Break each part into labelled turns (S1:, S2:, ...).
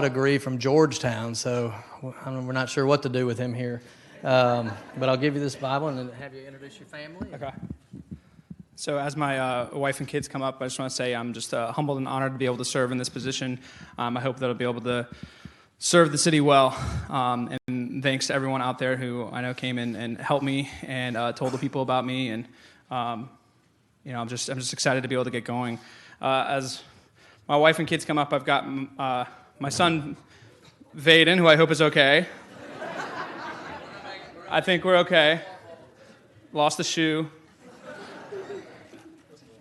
S1: degree from Georgetown, so I don't- we're not sure what to do with him here. Um, but I'll give you this Bible and then have you introduce your family.
S2: Okay. So, as my uh, wife and kids come up, I just want to say I'm just uh, humbled and honored to be able to serve in this position. Um, I hope that I'll be able to serve the city well. Um, and thanks to everyone out there who I know came in and helped me and uh, told the people about me. And um, you know, I'm just I'm just excited to be able to get going. Uh, as my wife and kids come up, I've got mm, uh, my son Vaden, who I hope is okay. I think we're okay. Lost the shoe.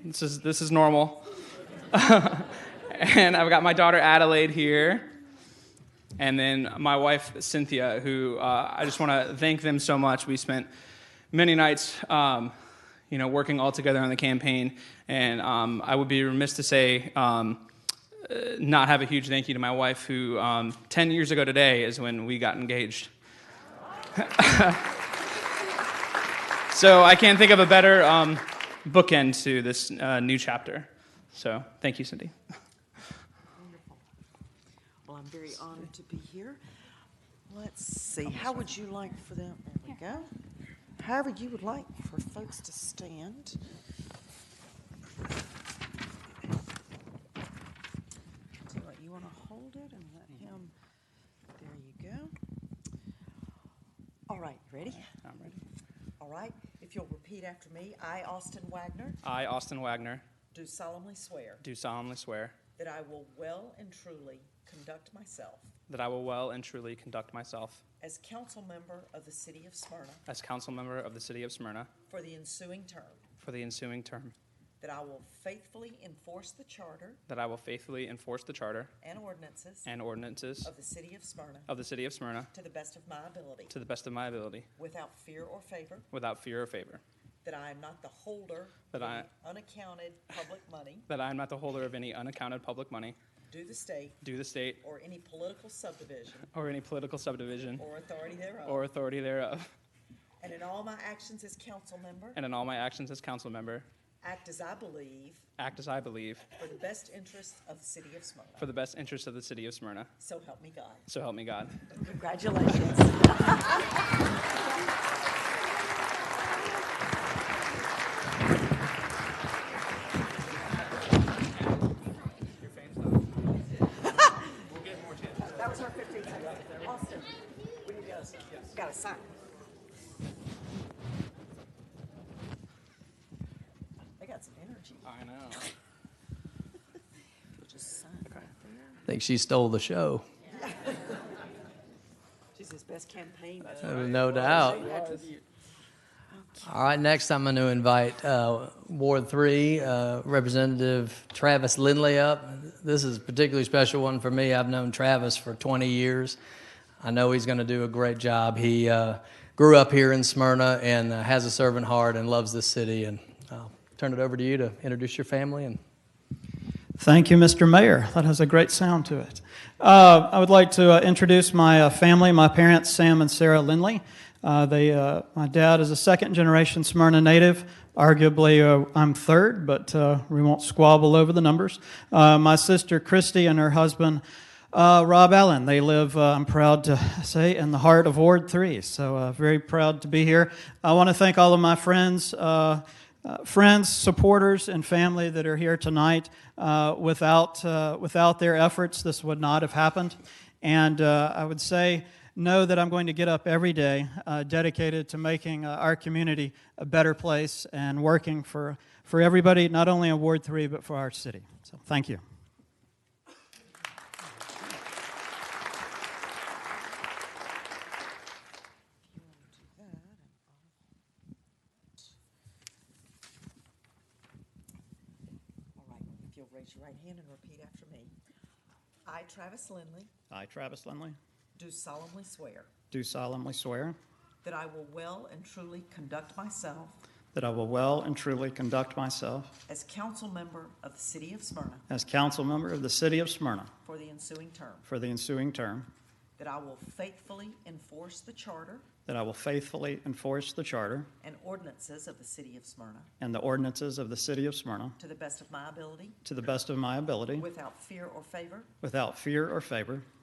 S2: This is this is normal. and I've got my daughter Adelaide here, and then my wife Cynthia, who uh, I just want to thank them so much. We spent many nights, um, you know, working all together on the campaign, and um, I would be remiss to say. Um, uh, not have a huge thank you to my wife, who um, 10 years ago today is when we got engaged. So I can't think of a better um, bookend to this uh, new chapter. So thank you, Cindy.
S3: Well, I'm very honored to be here. Let's see, how would you like for them, there we go. However you would like for folks to stand. So, like, You want to hold it and let him, there you go. All right, ready?
S2: I'm ready.
S3: All right, if you'll repeat after me, I, Austin Wagner,
S2: I, Austin Wagner,
S3: do solemnly swear
S2: do solemnly swear
S3: that I will well and truly conduct myself
S2: that I will well and truly conduct myself
S3: as council member of the city of Smyrna
S2: as council member of the city of Smyrna
S3: for the ensuing term,
S2: for the ensuing term,
S3: that I will faithfully enforce the charter
S2: that I will faithfully enforce the charter
S3: and ordinances
S2: and ordinances
S3: of the city of Smyrna
S2: of the city of Smyrna
S3: to the best of my ability,
S2: to the best of my ability,
S3: without fear or favor,
S2: without fear or favor,
S3: that I am not the holder of
S2: That I-
S3: any unaccounted public money
S2: that I am not the holder of any unaccounted public money
S3: due the state
S2: due the state
S3: or any political subdivision
S2: or any political subdivision
S3: or authority thereof,
S2: or authority thereof,
S3: and in all my actions as council member,
S2: and in all my actions as council member,
S3: act as I believe
S2: act as I believe
S3: for the best interests of the city of Smyrna.
S2: for the best interest of the city of Smyrna.
S3: So help me God.
S2: So help me God.
S3: Congratulations. That was our 15 seconds. Austin, we need to, got a sign. They got some energy.
S2: I know.
S3: You'll just sign right there.
S1: I think she stole the show,
S3: She's his best campaign.
S1: no doubt. All right, next I'm going to invite uh, Ward 3 uh, Representative Travis Lindley up. This is a particularly special one for me. I've known Travis for 20 years. I know he's going to do a great job. He uh, grew up here in Smyrna and uh, has a servant heart and loves this city. And I'll turn it over to you to introduce your family and
S4: Thank you, Mr. Mayor. That has a great sound to it. Uh, I would like to uh, introduce my uh, family, my parents, Sam and Sarah Lindley. Uh, they, uh, my dad is a second generation Smyrna native. Arguably, uh, I'm third, but uh, we won't squabble over the numbers. Uh, my sister Christy and her husband uh, Rob Allen. They live, uh, I'm proud to say, in the heart of Ward 3. So, uh, very proud to be here. I want to thank all of my friends. Uh, uh, friends, supporters, and family that are here tonight. Uh, without, uh, without their efforts, this would not have happened. And uh, I would say, know that I'm going to get up every day uh, dedicated to making uh, our community a better place and working for, for everybody, not only in Ward 3, but for our city. So thank you.
S3: All right, if you'll raise your right hand and repeat after me. I, Travis Lindley,
S4: I, Travis Lindley,
S3: do solemnly swear
S4: do solemnly swear
S3: that I will well and truly conduct myself
S4: that I will well and truly conduct myself
S3: as council member of the city of Smyrna
S4: as council member of the city of Smyrna
S3: for the ensuing term,
S4: for the ensuing term,
S3: that I will faithfully enforce the charter
S4: that I will faithfully enforce the charter
S3: and ordinances of the city of Smyrna
S4: and the ordinances of the city of Smyrna
S3: to the best of my ability,
S4: to the best of my ability,
S3: without fear or favor,
S4: without fear or favor,